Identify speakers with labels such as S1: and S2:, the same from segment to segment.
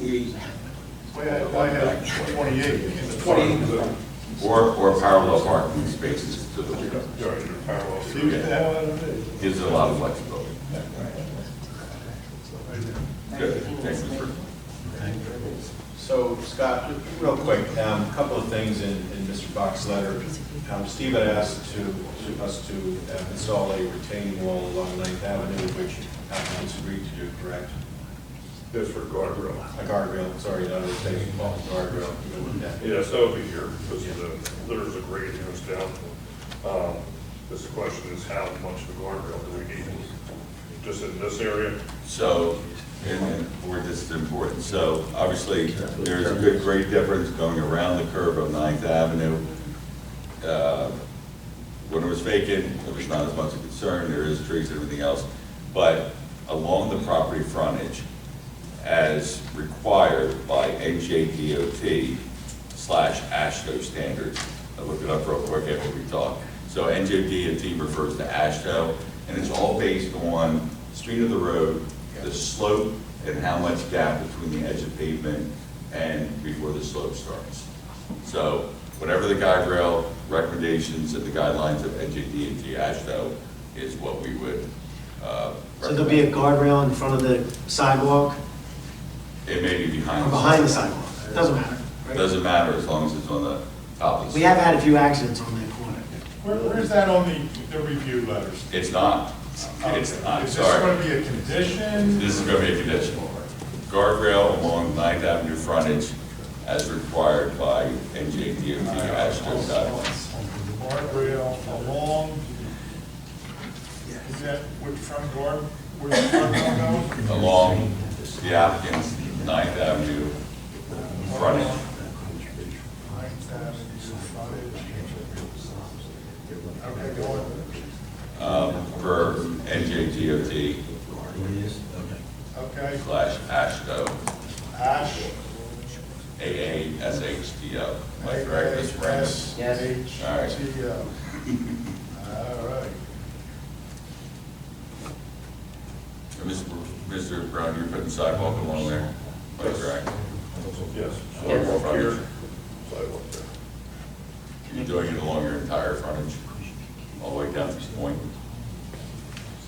S1: we,
S2: We had, I had twenty-eight in the.
S1: Twenty.
S3: Or, or parallel parking spaces to the rear.
S2: See what the hell that is.
S3: Gives it a lot of flexibility. Good, thank you for.
S4: So Scott, just real quick, um, a couple of things in, in Mr. Bach's letter. Um, Steve had asked to, to us to uh, install a retaining wall along Ninth Avenue, which applicants agreed to do, correct?
S2: That's for guardrail.
S4: A guardrail, sorry, not a retaining wall, guardrail. you know, with that.
S5: Yes, that would be here, because the, there's a grade that goes down. Um, This question is how much of a guardrail do we need? Just in this area?
S3: So, and then where this is important, so obviously, there's a good, great difference going around the curve of Ninth Avenue. Uh, When it was vacant, it was not as much a concern, there is trees and everything else, but along the property frontage, as required by NJDOT slash ASHTO standards. I looked it up real quick after we talked. So NJDOT refers to ASHTO, and it's all based on street of the road, the slope, and how much gap between the edge of pavement and before the slope starts. So whatever the guide rail recommendations and the guidelines of NJDOT ASHTO is what we would uh, recommend.
S6: So there'll be a guardrail in front of the sidewalk,
S3: It may be behind.
S6: or behind the sidewalk, doesn't matter. right?
S3: Doesn't matter as long as it's on the top of the.
S6: We have had a few accidents on that corner.
S2: Where, where's that on the, the review letters?
S3: It's not. It's,
S2: Okay.
S3: I'm
S2: Is this
S3: sorry.
S2: gonna be a condition?
S3: This is going to be a conditional. Guardrail along Ninth Avenue frontage as required by NJDOT ASHTO guidelines.
S2: Guardrail along, is that which front guard, where the front guard goes?
S3: Along the applicant's Ninth Avenue frontage.
S2: Ninth Avenue frontage. Okay, go on.
S3: um, Per NJDOT
S2: Okay,
S3: slash ASHTO,
S2: Ash.
S3: A-A-S-H-T-O. Am I correct, Mr. Brandon?
S2: S
S6: Yes.
S2: H
S3: All right.
S2: T O. All right.
S3: And Mr. Br- Mr. Brown, you're putting sidewalk along there? Am I correct?
S5: Yes.
S3: Sidewalk here.
S5: Sidewalk there.
S3: You're doing it along your entire frontage, all the way down to this point?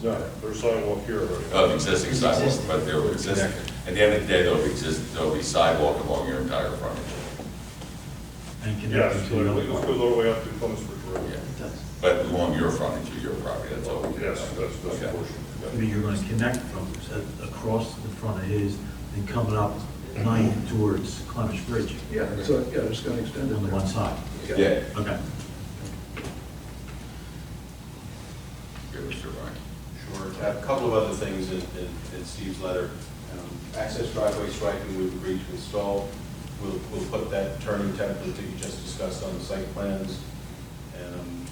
S5: No, there's sidewalk here already.
S3: Of Oh, existing sidewalk,
S6: Existing.
S3: but there will exist, at the end of the day, there'll be exist, there'll be sidewalk along your entire frontage.
S5: Yes, literally, this goes all the way up to Clemensburg
S3: Yeah.
S5: Road.
S6: It does.
S3: But along your frontage of your property, that's all we can
S5: Yes,
S3: do.
S5: that's, that's the
S3: Okay.
S5: portion.
S7: I mean, you're gonna connect from, uh, across the front of his, and coming up nine towards Clemish Bridge
S8: Yeah, so, yeah, it's gonna extend it.
S7: on the one side.
S3: Yeah.
S7: Okay.
S3: Good, Mr. Ryan.
S4: Sure. A couple of other things in, in- in Steve's letter. Um, Access driveway striping, we've agreed to install. We'll, we'll put that turning template that you just discussed on the site plans. Um,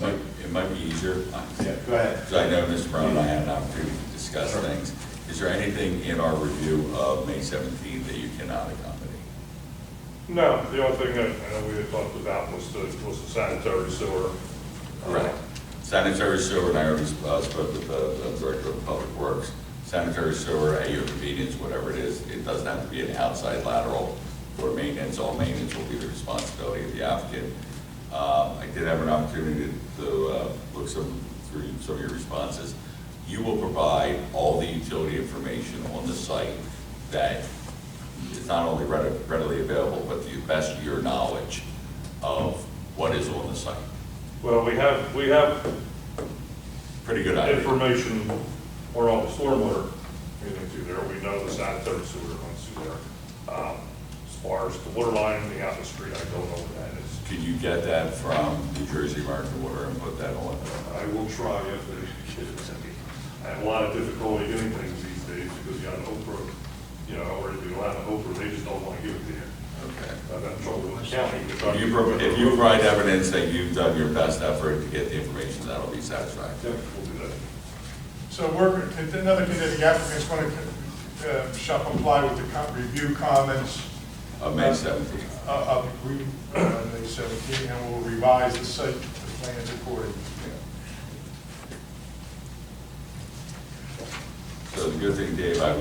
S3: Might, it might be easier,
S4: Yeah, go ahead.
S3: because I know Mr. Brown and I had an opportunity to discuss
S4: Sure.
S3: things. Is there anything in our review of May 17th that you cannot accommodate?
S5: No, the only thing that uh, we had talked about was the, was the sanitary sewer. Uh,
S3: Correct. Sanitary sewer, and I already uh, spoke with the the Director of Public Works, sanitary sewer, at your convenience, whatever it is, it doesn't have to be an outside lateral for maintenance, all maintenance will be the responsibility of the applicant. Um, I did have an opportunity to- to uh, look some, through some of your responses. You will provide all the utility information on the site that is not only readi- readily available, but to the best of your knowledge of what is on the site.
S5: Well, we have, we have
S3: Pretty good idea.
S5: information or all the stormwater, anything through there, we know the sanitary sewer runs through there. Um, As far as the water line, the out in the street, I don't know what that is.
S3: Could you get that from New Jersey American Water and put that on?
S5: I will try if they give it to me. I have a lot of difficulty doing things these days because you got an Oprah, you know, or if you allow an Oprah, they just don't want to give it to you.
S3: Okay.
S5: I've had trouble with the county.
S3: If you, pro- if you provide evidence that you've done your best effort to get the information, that'll be
S5: Yeah,
S3: satisfactory.
S5: we'll do that.
S2: So we're, another condition, the applicant's gonna, uh, shall comply with the co- review comments
S3: Of May seventeenth.
S2: uh, of the, uh, May 17, and we'll revise the site, the plans accordingly.
S3: So the good thing, Dave, I've